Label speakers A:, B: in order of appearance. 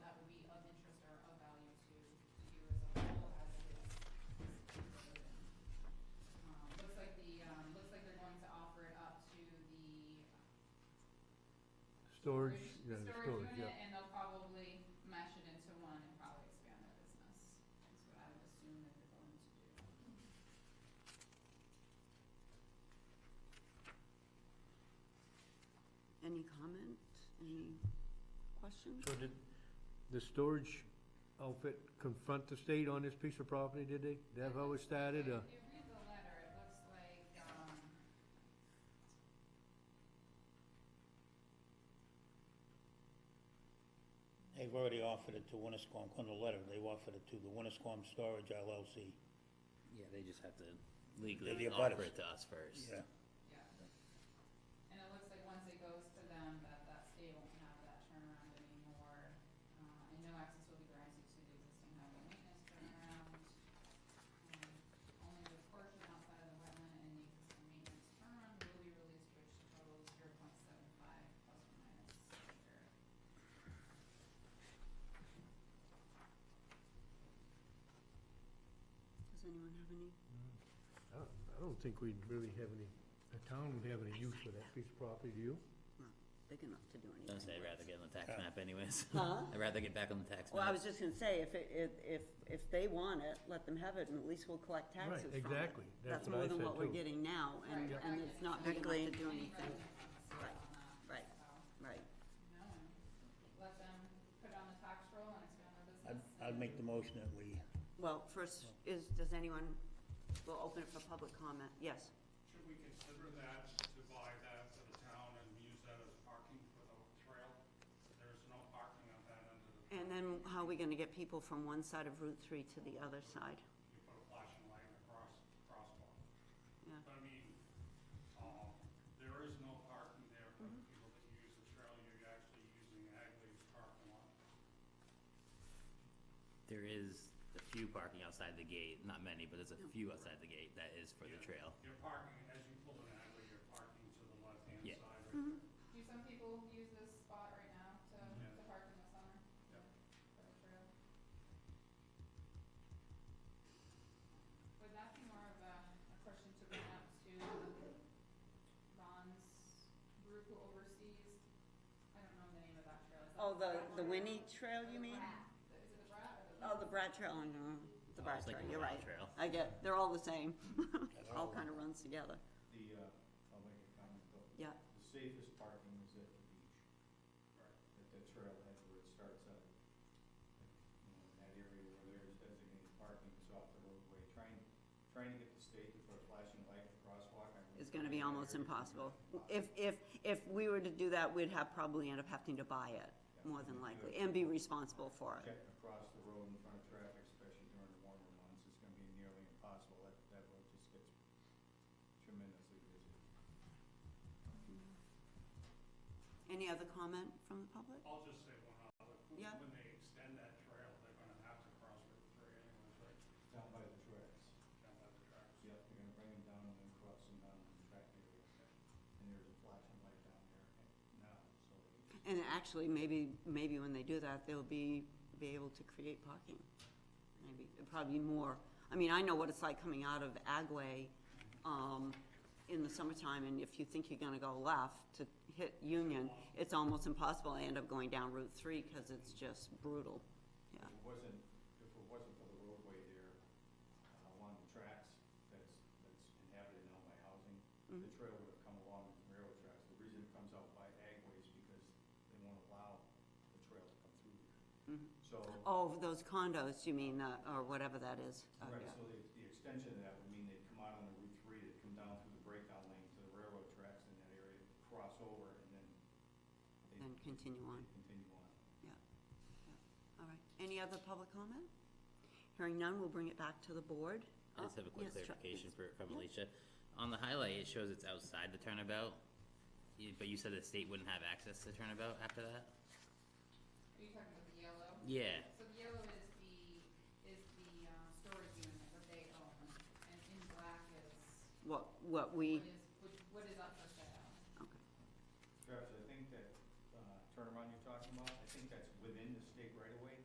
A: Um,
B: Any comment, any questions?
C: So did the storage outfit confront the state on this piece of property, did they? Did that how it started, uh, or?
A: If you read the letter, it looks like, um,
D: They've already offered it to Winnisquam, on the letter, they've offered it to the Winnisquam Storage LLC.
E: Yeah, they just have to
D: the
E: legally
D: abutters.
E: offer it to us first.
D: Yeah,
A: yeah. And it looks like once it goes to them, that that state won't have that turnaround anymore. Uh, and no access will be granted to the existing highway maintenance turnaround. Um, Only the portion outside of the wetland and the existing maintenance turnaround will be released, which totals zero point seven five plus or minus acre.
B: Does anyone have any?
C: I don't- I don't think we'd really have any, the town would have any use for that piece of property, do you?
B: Big enough to do anything.
E: Don't say I'd rather get on the tax
D: Yeah.
E: map anyways.
B: Huh?
E: I'd rather get back on the tax map.
B: Well, I was just gonna say, if, it- if, if, if they want it, let them have it, and at least we'll collect
C: Right,
B: taxes from it.
C: exactly. That's
B: That's
C: what
B: more
C: I
B: than
C: said,
B: what we're
C: too.
B: getting now, and,
A: Right.
B: and it's not big enough to do anything,
A: Right,
B: Right. right?
A: No, and let them put it on the tax roll and expand their
D: I'd,
A: business.
D: I'd make the motion that we,
B: Well, first, is, does anyone, we'll open it for public comment, yes.
F: Should we consider that to buy that for the town and use that as parking for the trail? There's no parking on that end of the,
B: And then how are we gonna get people from one side of Route three to the other side?
F: you put a flashing light across, crosswalk.
B: Yeah.
F: But I mean, uh, there is no parking there for
B: Mm-hmm.
F: the people that use the trail, you're actually using Agley's parking lot.
E: There is a few parking outside the gate, not many, but there's a few outside the gate that is for the trail.
F: You're parking, as you pull in Agley, you're parking to the left-hand
E: Yeah.
F: side. right
B: Mm-hmm.
A: Do some people use this spot right now to,
F: Yeah.
A: to park in the summer?
F: Yep.
A: For the trail? Would that be more of a, a question to bring up to Ron's group who oversees, I don't know the name of that trail, is that?
B: Oh, the,
A: Brat
B: the
A: one or-
B: Winnie Trail,
A: or the
B: you mean?
A: Brat? Is it the Brat or the?
B: Oh, the Brad Trail, oh, no, the
E: Oh,
B: Brad
E: it's like
B: Trail,
E: the
B: you're
E: Wild
B: right.
E: Trail.
B: I get, they're all the same,
D: They're
B: all
D: all-
B: kinda runs together,
G: The, uh, I'll make a comment though.
B: yeah.
G: The safest parking is at the beach, at the trailhead where it starts out. You know, in that area where there's designated parking is off the roadway. Trying, trying to get the state to put a flashing light in the crosswalk. I mean,
B: is gonna be almost
G: area is
B: impossible.
G: gonna be
B: If, if, if we were to do that, we'd have, probably end up having to buy it, more than likely, and be responsible for it.
G: Checking across the road in front of traffic, especially during the warmer months, is gonna be nearly impossible. That, that road just gets tremendously busy.
B: Any other comment from the public?
F: I'll just say one other,
B: Yeah.
F: when they extend that trail, they're gonna have to cross Route three anyways, right,
G: Down by the tracks.
F: down by the tracks.
G: Yep, they're gonna bring them down and then cross them down in the back area. And there's a flashing light down there now, so.
B: And actually, maybe, maybe when they do that, they'll be, be able to create parking. Maybe, probably more. I mean, I know what it's like coming out of Agway, um, in the summertime, and if you think you're gonna go left to hit Union, it's almost impossible. I end up going down Route three, cause it's just brutal, yeah.
G: If it wasn't, if it wasn't for the roadway there, uh, along the tracks, that's, that's inhabited now by housing, the trail would have come along the railroad tracks. The reason it comes out by Agway is because they won't allow the trail to come through there. So,
B: Oh, those condos, you mean, uh, or whatever that is? Oh,
G: right,
B: yeah.
G: so the, the extension of that would mean they'd come out on the Route three, they'd come down through the breakdown lane to the railroad tracks in that area, cross over, and then they'd
B: Then continue on,
G: continue on.
B: yeah. Yeah. All right. Any other public comment? Hearing none, we'll bring it back to the board.
E: I just have a quick
B: Oh, Yes, Chuck,
E: clarification
B: please.
E: for, from Alicia. On the highlight, it shows it's outside the turnabout, you- but you said the state wouldn't have access to the turnabout after that?
A: Are you talking about the yellow?
E: Yeah,
A: So the yellow is the, is the, um, storage unit that they own, and in black is
B: What,
A: what
B: what we,
A: is, what- what is up for sale.
B: okay.
G: Travis, I think that uh, turnaround you're talking about, I think that's